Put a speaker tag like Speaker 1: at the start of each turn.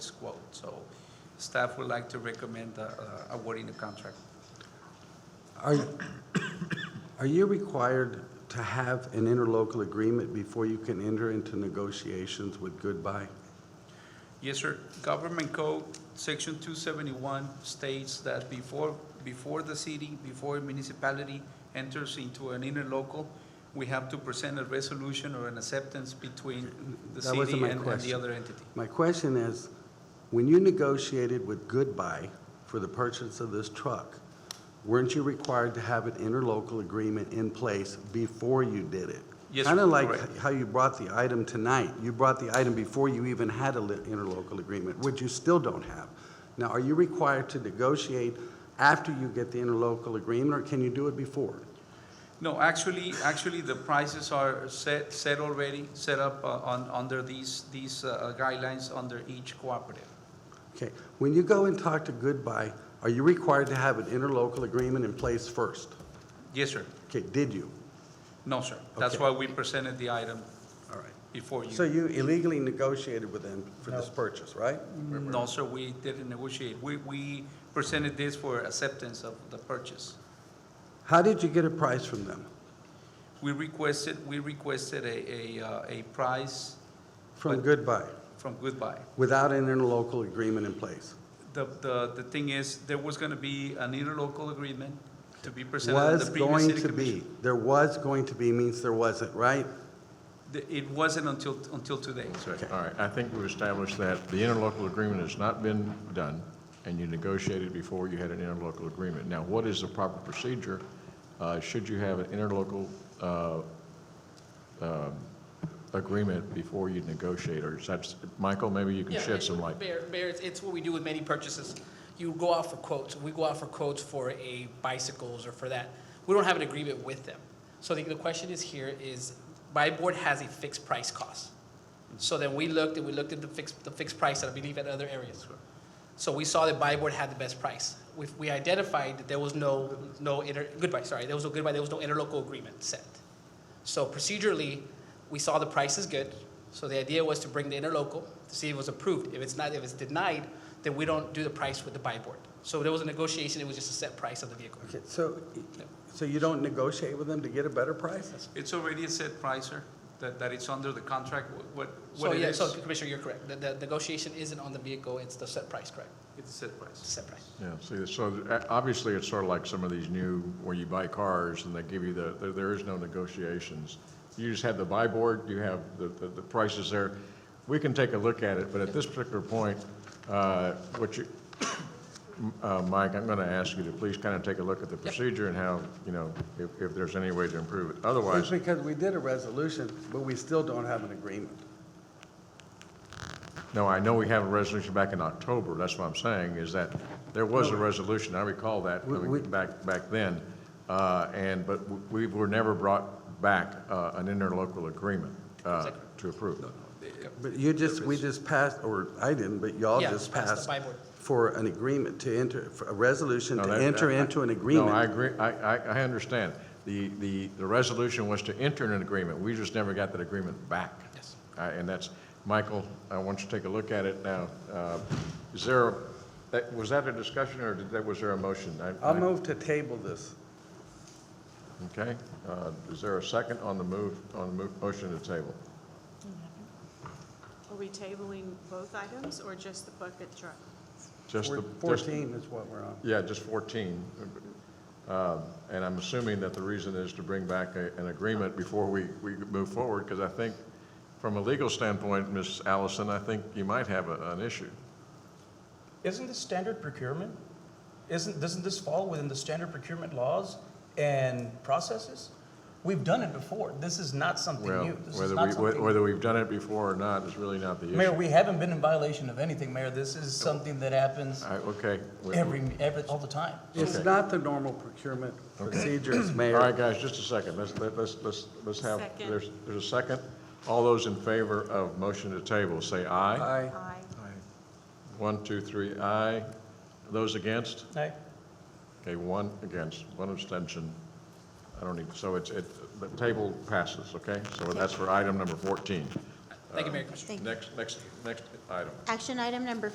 Speaker 1: this quote. So staff would like to recommend uh, uh, awarding the contract.
Speaker 2: Are, are you required to have an interlocal agreement before you can enter into negotiations with Goodbye?
Speaker 1: Yes, sir. Government Code, Section 271 states that before, before the city, before a municipality enters into an interlocal, we have to present a resolution or an acceptance between the
Speaker 2: That wasn't
Speaker 1: city
Speaker 2: my
Speaker 1: and and the
Speaker 2: question.
Speaker 1: other entity.
Speaker 2: My question is, when you negotiated with Goodbye for the purchase of this truck, weren't you required to have an interlocal agreement in place before you did it?
Speaker 1: Yes,
Speaker 2: Kind of
Speaker 1: correct.
Speaker 2: like how you brought the item tonight. You brought the item before you even had an interlocal agreement, which you still don't have. Now, are you required to negotiate after you get the interlocal agreement, or can you do it before?
Speaker 1: No, actually, actually, the prices are set, set already, set up uh, on, under these, these uh, guidelines under each cooperative.
Speaker 2: Okay, when you go and talk to Goodbye, are you required to have an interlocal agreement in place first?
Speaker 1: Yes, sir.
Speaker 2: Okay, did you?
Speaker 1: No, sir. That's
Speaker 2: Okay.
Speaker 1: why we presented the item
Speaker 2: All right.
Speaker 1: before you.
Speaker 2: So you illegally negotiated with them for this purchase, right?
Speaker 1: No, sir, we didn't negotiate. We, we presented this for acceptance of the purchase.
Speaker 2: How did you get a price from them?
Speaker 1: We requested, we requested a, a, uh, a price
Speaker 2: From
Speaker 1: But-
Speaker 2: Goodbye,
Speaker 1: from Goodbye.
Speaker 2: without an interlocal agreement in place?
Speaker 1: The, the, the thing is, there was gonna be an interlocal agreement to be presented at
Speaker 2: Was
Speaker 1: the previous
Speaker 2: going
Speaker 1: city
Speaker 2: to
Speaker 1: commission.
Speaker 2: be, there was going to be means there wasn't, right?
Speaker 1: The- It wasn't until, until today, sir.
Speaker 2: Okay.
Speaker 3: All right, I think we've established that the interlocal agreement has not been done, and you negotiated before you had an interlocal agreement. Now, what is the proper procedure, uh, should you have an interlocal, uh, um, agreement before you negotiate, or is that, Michael, maybe you can
Speaker 4: Yeah,
Speaker 3: shed
Speaker 4: it-
Speaker 3: some light?
Speaker 4: Bear, Bear, it's- it's what we do with many purchases. You go out for quotes, we go out for quotes for a bicycles or for that. We don't have an agreement with them. So the, the question is here is, my board has a fixed price cost. So then we looked and we looked at the fixed, the fixed price that I believe at other areas. So we saw that buy board had the best price. We, we identified that there was no, no inter, goodbye, sorry, there was no goodbye, there was no interlocal agreement set. So procedurally, we saw the price is good, so the idea was to bring the interlocal, to see if it was approved. If it's not, if it's denied, then we don't do the price with the buy board. So there was a negotiation, it was just a set price of the vehicle.
Speaker 2: Okay, so, so you don't negotiate with them to get a better price?
Speaker 1: It's already a set price, sir, that, that it's under the contract, wh- what,
Speaker 4: So
Speaker 1: what it
Speaker 4: yeah,
Speaker 1: is.
Speaker 4: so Commissioner, you're correct. The, the negotiation isn't on the vehicle, it's the set price, correct?
Speaker 1: It's a set price.
Speaker 4: It's a set price.
Speaker 3: Yeah, see, so uh, obviously, it's sort of like some of these new, where you buy cars and they give you the, there- there is no negotiations. You just have the buy board, you have the, the the prices there. We can take a look at it, but at this particular point, uh, what you, uh, Mike, I'm going to ask you to please kind of take a look at the procedure and how, you know, if, if there's any way to improve it.
Speaker 2: It's
Speaker 3: Otherwise,
Speaker 2: because we did a resolution, but we still don't have an agreement.
Speaker 3: no, I know we have a resolution back in October, that's what I'm saying, is that there was a resolution, I recall that,
Speaker 2: We- we-
Speaker 3: coming back, back then, uh, and, but we were never brought back uh, an interlocal agreement uh, to approve.
Speaker 2: But you just, we just passed, or I didn't, but y'all
Speaker 4: Yeah,
Speaker 2: just
Speaker 4: passed the
Speaker 2: passed
Speaker 4: buy board.
Speaker 2: for an agreement to enter, for a resolution
Speaker 3: No,
Speaker 2: to
Speaker 3: that-
Speaker 2: enter
Speaker 3: I-
Speaker 2: into an agreement.
Speaker 3: No, I agree, I, I, I understand. The, the, the resolution was to enter an agreement, we just never got that agreement back.
Speaker 4: Yes.
Speaker 3: Uh, And that's, Michael, I want you to take a look at it now. Uh, Is there, a- that- was that a discussion, or did that, was there a motion? I-
Speaker 2: I'll
Speaker 3: I-
Speaker 2: move to table this.
Speaker 3: Okay, uh, is there a second on the move, on the move, motion to table?
Speaker 5: Are we tabling both items or just the bucket truck?
Speaker 3: Just the-
Speaker 2: We're-
Speaker 3: just-
Speaker 2: 14 is what we're on.
Speaker 3: Yeah, just 14. Um, And I'm assuming that the reason is to bring back a- an agreement before we, we move forward, because I think, from a legal standpoint, Ms. Allison, I think you might have a- an issue.
Speaker 6: Isn't this standard procurement? Isn't, doesn't this fall within the standard procurement laws and processes? We've done it before. This is not something
Speaker 3: Well,
Speaker 6: new. This is
Speaker 3: whether
Speaker 6: not
Speaker 3: we,
Speaker 6: something-
Speaker 3: whether we've done it before or not is really not the issue.
Speaker 6: Mayor, we haven't been in violation of anything, Mayor. This is something that happens
Speaker 3: All right, Okay. we-
Speaker 6: every, every, all the time.
Speaker 2: It's
Speaker 3: Okay.
Speaker 2: not the normal procurement procedures,
Speaker 3: All
Speaker 2: Mayor.
Speaker 3: right, guys, just a second. Let's, let- let's, let's, let's have,
Speaker 5: Second.
Speaker 3: there's, there's a second. All those in favor of motion to table, say aye.
Speaker 2: Aye.
Speaker 5: Aye.
Speaker 3: One, two, three, aye. Those against?
Speaker 6: Right?
Speaker 3: Okay, one against, one abstention. I don't need, so it's, it, the table passes, okay? So that's for item number 14.
Speaker 1: Uh,
Speaker 4: Thank you, Mayor Commissioner.
Speaker 7: Thank you.
Speaker 3: Next, next, next item.
Speaker 7: Action item number